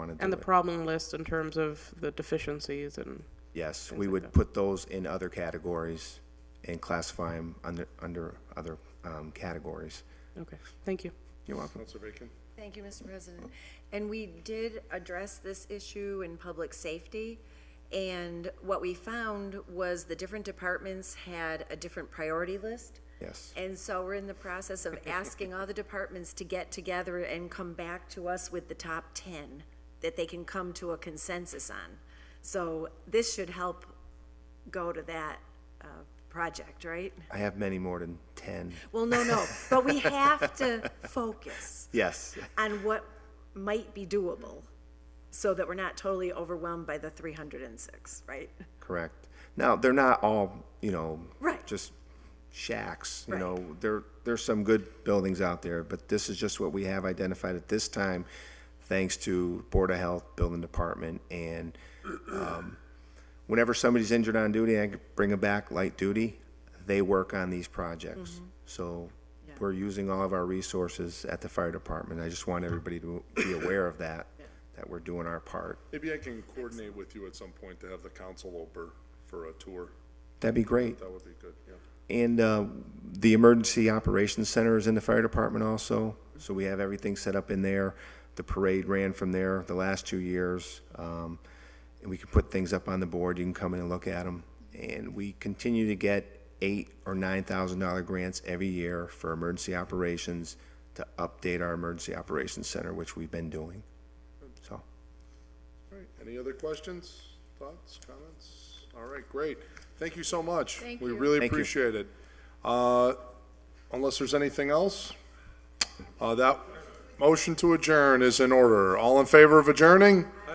want to And do the it. problem list in terms of the deficiencies and, Yes, we would put those in other categories and classify them under, under other um, categories. okay, thank you. You're welcome. Counselor Bacon? Thank you, Mr. President. And we did address this issue in public safety, and what we found was the different departments had a different priority list. Yes. And so we're in the process of asking all the departments to get together and come back to us with the top 10 that they can come to a consensus on. So this should help go to that uh, project, right? I have many more than 10. Well, no, no, but we have to focus Yes, on what might be doable so that we're not totally overwhelmed by the 306, right? correct. Now, they're not all, you know, Right. just shacks, you Right. know, there, there's some good buildings out there, but this is just what we have identified at this time, thanks to Board of Health, Building Department, and um, whenever somebody's injured on duty, I bring them back light duty, they work on these Mm-hmm. projects. So we're using all of our resources at the fire department. I just want everybody to be aware of that, that we're doing our part. Maybe I can coordinate with you at some point to have the council over for a tour. That'd be great. That would be good, yeah. And uh, the Emergency Operations Center is in the fire department also, so we have everything set up in there. The parade ran from there the last two years. Um, And we can put things up on the board, you can come in and look at them. And we continue to get eight or nine thousand dollar grants every year for emergency operations to update our Emergency Operations Center, which we've been doing. So, All right, any other questions, thoughts, comments? All right, great. Thank you so much. Thank We really Thank you. appreciate it. Uh, Unless there's anything else, uh, that motion to adjourn is in order. All in favor of adjourning?